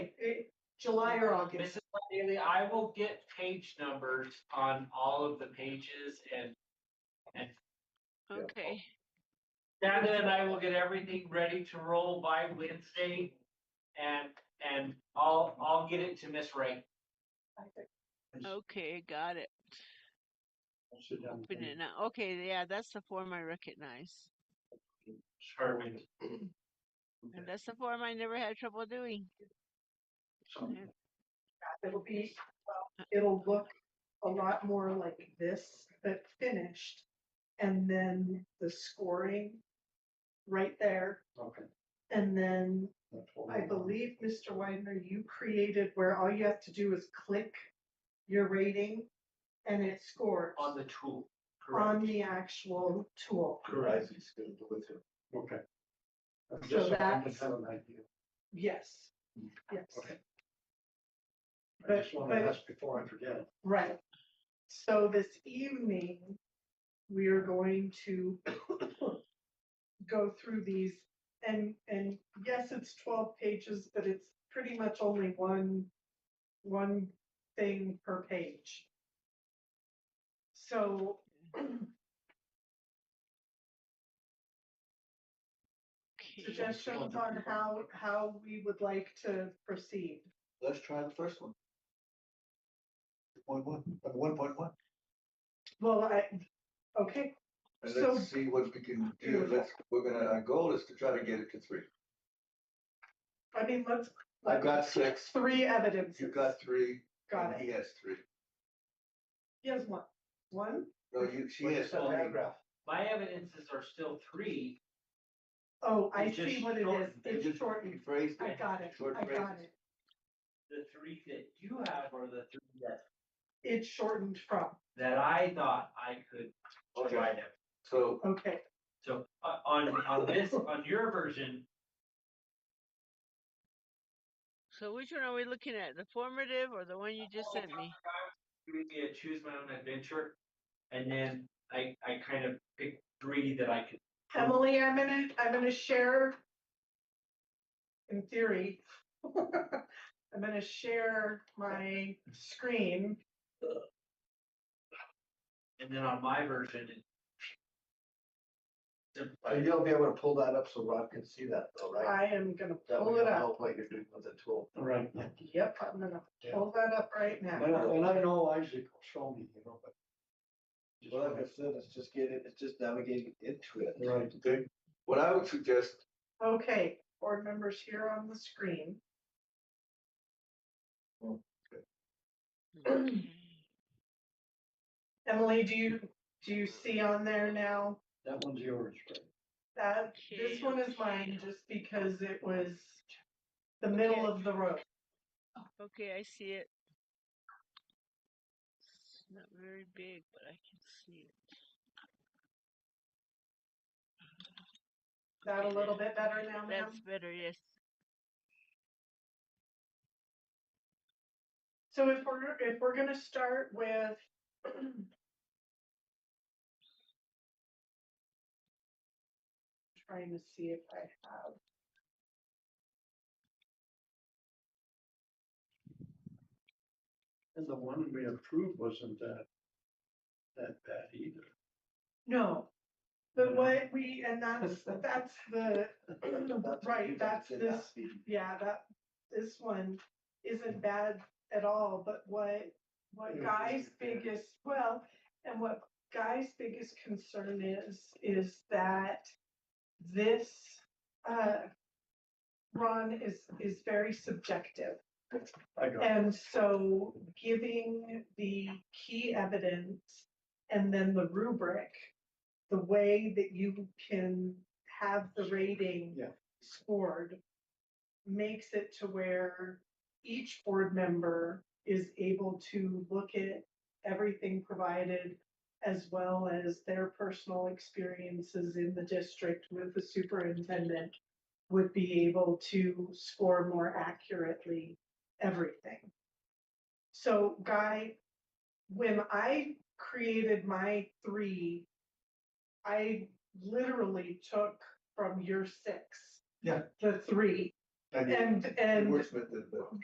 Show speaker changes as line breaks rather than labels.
July or August?
Mrs. Daily, I will get page numbers on all of the pages and
Okay,
Dana and I will get everything ready to roll by Wednesday. And, and I'll, I'll get it to Miss Ray.
okay, got it. Open it now. Okay, yeah, that's the form I recognize.
Perfect.
And that's the form I never had trouble doing.
It'll be, uh, it'll look a lot more like this, but finished. And then the scoring right there.
Okay.
And then
that's what
I
we're doing.
believe, Mr. Widener, you created where all you have to do is click your rating and it scores
On the tool.
on the actual tool.
Correct. He's gonna do it too. Okay. That's
So
just so I can
that's-
have an idea.
Yes, yes,
Okay. I
But-
just wanna
but-
ask before I forget. it.
right. So this evening, we are going to go through these and, and yes, it's twelve pages, but it's pretty much only one, one thing per page. So
Okay,
suggestions on how, how we would like to proceed.
Let's try the first one. Point one, uh, one point one,
Well, I, okay,
and
So-
let's see what we can do,
Beautiful.
let's, we're gonna, our goal is to try to get it to three.
I mean, let's.
I've got six,
Three evidences.
you've got three,
Got
and
it.
he has three,
He has one. One?
no, you, she
What's
has
that
three.
paragraph?
My evidences are still three.
Oh, I
It's just
see what it is.
shortened.
They
It's
just
shortened.
rephrased
I
it.
got it.
Short
I got
phrases.
it.
The three that you have are the three that,
It's shortened from.
that I thought I could
Okay.
provide them.
So,
Okay,
So uh, on, on this, on your version,
so which one are we looking at? The formative or the one you just sent me?
giving me a choose my own adventure. And then I, I kind of picked three that I could.
Emily, I'm gonna, I'm gonna share. In theory. I'm gonna share my screen.
And then on my version, it-
Uh, You'll be able to pull that up so Rob can see that though, right?
I am gonna
That
pull
will
it up.
help what you're doing with the tool. Right.
Yep, I'm gonna
Yeah.
pull that up right now.
And I, and I know Isaac will show me, you know, but. just
Well, like I
wanna-
said, it's just getting, it's just navigating into it.
Right,
okay, what I would suggest,
Okay, board members here on the screen.
Okay.
Emily, do you, do you see on there now?
that one's yours, right?
That, this
Okay,
one is
okay.
mine just because it was the middle
Okay.
of the road.
Okay, I see it. It's not very big, but I can see it.
Is that a little bit better now, ma'am?
That's better, yes.
So if we're, if we're gonna start with trying to see if I have.
And the one we approved wasn't that, that bad either.
No,
Yeah.
but what we, and that's, that's the, right, that's this Yeah, that, this one isn't bad at all, but what,
It
what
was
Guy's
just-
biggest, well, and what Guy's biggest concern is, is that this, uh, Ron is, is very subjective.
I got it.
And so giving the key evidence and then the rubric, the way that you can have the rating
Yeah.
scored makes it to where each board member is able to look at everything provided as well as their personal experiences in the district with the superintendent would be able to score more accurately everything. So Guy, when I created my three, I literally took from your six.
Yeah.
The three
And
and, and
wordsmith did the